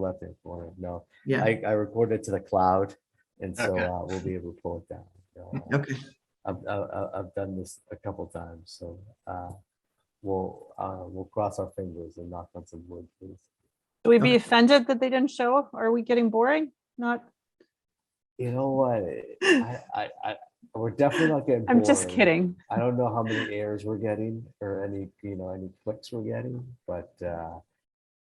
left hand corner. No, Yeah, I, I recorded to the cloud and so Okay. uh, we'll be able to pull it down. So, uh, okay, I've, I- I- I've done this a couple times, so uh, we'll, uh, we'll cross our fingers and knock on some wood, please. Should we be Okay. offended that they didn't show up? Are we getting boring? Not, You know what? I, I, I, we're definitely not getting. I'm just bored. kidding. I don't know how many airs we're getting or any, you know, any clicks we're getting, but, uh,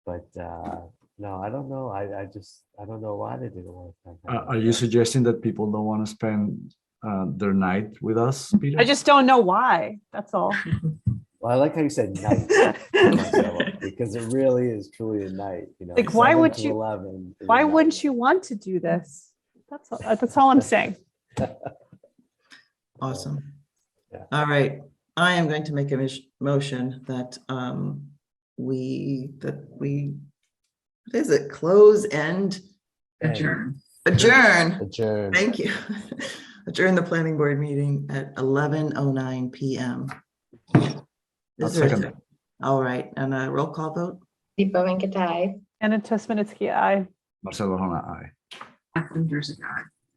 but, uh, no, I don't know. I, I just, I don't know why they didn't want to. come Are out, Uh, are you but suggesting that people don't want to spend uh, their night with us, Peter? I just don't know why, that's all. Well, I like how you said night. Marcelo, Because it really is truly a night, you know. Like, why 7 would to you- 11 is a Why night. wouldn't you want to do this? That's, all- that's all I'm saying. awesome. Yeah. All right, I am going to make a mis- motion that um we, that we, what is it, close and End. adjourn? Adjourn, Adjourn. thank you. Adjourn the planning board meeting at eleven oh nine PM. I'll Is there a second sec- All right, and a roll call vote? Deepa Venkata. Anna Tesmanitsky, aye. Marcelo Hona, aye.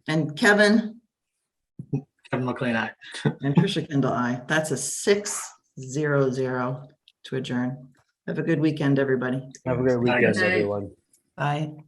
And Kevin? Kevin McLean, aye. And Trisha Kendall, I. That's a six zero zero to adjourn. Have a good weekend, everybody. Have a great Night, weekend, guys. everyone. Bye.